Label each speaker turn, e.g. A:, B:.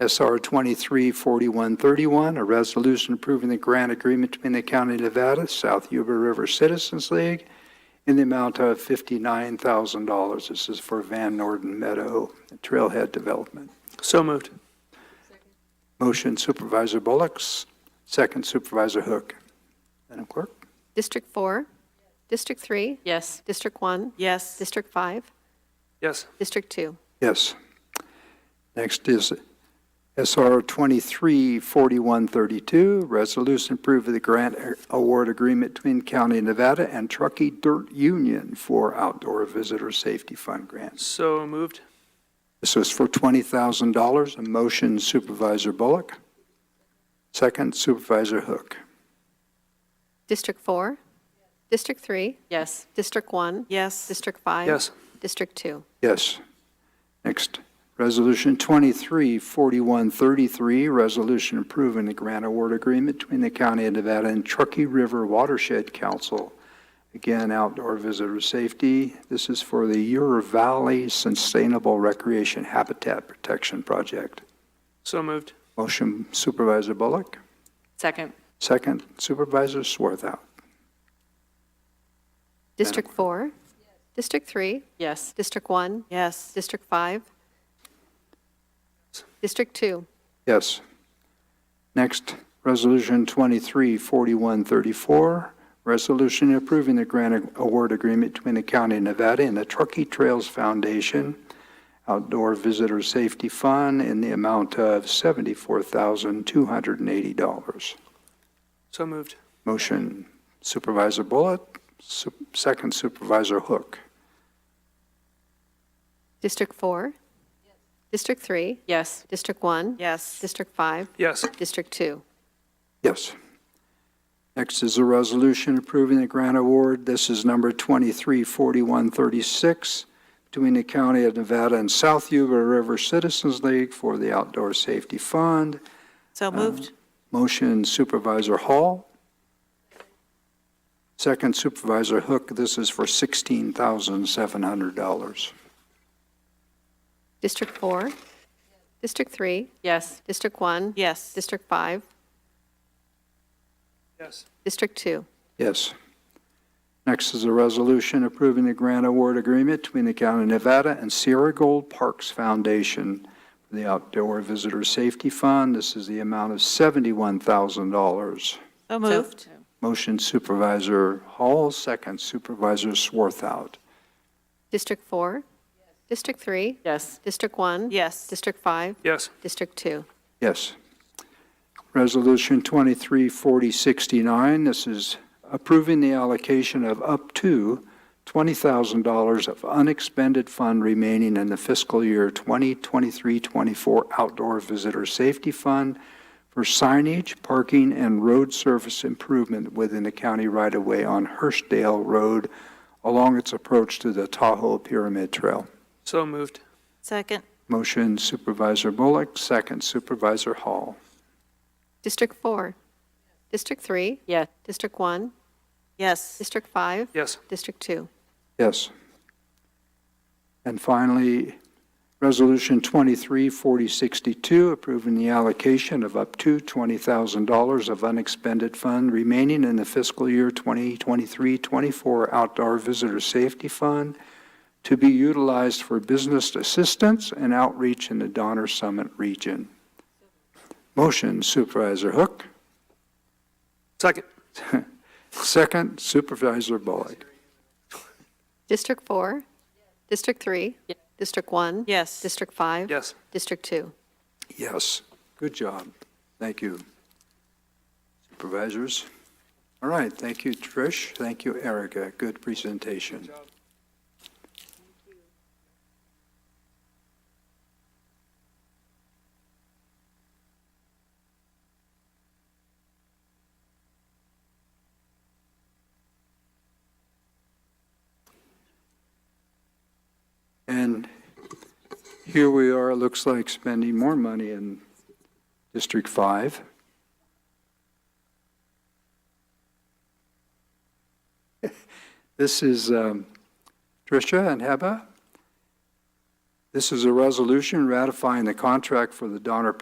A: SR 234131, a resolution approving the grant agreement between the County of Nevada, South Yuba River Citizens League, in the amount of $59,000. This is for Van Norden Meadow Trailhead Development.
B: So moved.
A: Motion Supervisor Bullocks, second Supervisor Hook. Madam Clerk?
C: District 4, District 3,
D: Yes.
C: District 1,
D: Yes.
C: District 5,
B: Yes.
C: District 2.
A: Yes. Next is SR 234132, resolution approving the grant award agreement between County of Nevada and Truckee Dirt Union for Outdoor Visitor Safety Fund grants.
B: So moved.
A: This was for $20,000. A motion Supervisor Bullock, second Supervisor Hook.
C: District 4, District 3,
D: Yes.
C: District 1,
D: Yes.
C: District 5.
B: Yes.
C: District 2.
A: Yes. Next, Resolution 234133, resolution approving the grant award agreement between the County of Nevada and Truckee River Watershed Council. Again, outdoor visitor safety. This is for the Ure Valley Sustainable Recreation Habitat Protection Project.
B: So moved.
A: Motion Supervisor Bullock,
D: Second.
A: second Supervisor Swarthout.
C: District 4, District 3,
D: Yes.
C: District 1,
D: Yes.
C: District 5, District 2.
A: Yes. Next, Resolution 234134, resolution approving the grant award agreement between the County of Nevada and the Truckee Trails Foundation Outdoor Visitor Safety Fund in the amount of $74,280.
B: So moved.
A: Motion Supervisor Bullitt, su- second Supervisor Hook.
C: District 4, District 3,
D: Yes.
C: District 1,
D: Yes.
C: District 5,
B: Yes.
C: District 2.
A: Yes. Next is a resolution approving the grant award. This is number 234136 between the County of Nevada and South Yuba River Citizens League for the Outdoor Safety Fund.
D: So moved.
A: Motion Supervisor Hall. Second Supervisor Hook. This is for $16,700.
C: District 4, District 3,
D: Yes.
C: District 1,
D: Yes.
C: District 5,
B: Yes.
C: District 2.
A: Yes. Next is a resolution approving the grant award agreement between the County of Nevada and Sierra Gold Parks Foundation for the Outdoor Visitor Safety Fund. This is the amount of $71,000.
D: So moved.
A: Motion Supervisor Hall, second Supervisor Swarthout.
C: District 4, District 3,
D: Yes.
C: District 1,
D: Yes.
C: District 5,
B: Yes.
C: District 2.
A: Yes. Resolution 234069, this is approving the allocation of up to $20,000 of unexpended fund remaining in the fiscal year 2023-24 Outdoor Visitor Safety Fund for signage, parking, and road surface improvement within the county right-of-way on Hurstdale Road along its approach to the Tahoe Pyramid Trail.
B: So moved.
D: Second.
A: Motion Supervisor Bullock, second Supervisor Hall.
C: District 4, District 3,
D: Yes.
C: District 1,
D: Yes.
C: District 5,
B: Yes.
C: District 2.
A: Yes. And finally, Resolution 234062, approving the allocation of up to $20,000 of unexpended fund remaining in the fiscal year 2023-24 Outdoor Visitor Safety Fund to be utilized for business assistance and outreach in the Donner Summit region. Motion Supervisor Hook,
B: Second.
A: second Supervisor Bullock.
C: District 4, District 3, District 1,
D: Yes.
C: District 5,
B: Yes.
C: District 2.
A: Yes, good job. Thank you. Supervisors? All right, thank you, Trish. Thank you, Erica. Good presentation. And here we are, it looks like spending more money in District 5. This is um, Tricia and Heba. This is a resolution ratifying the contract for the Donner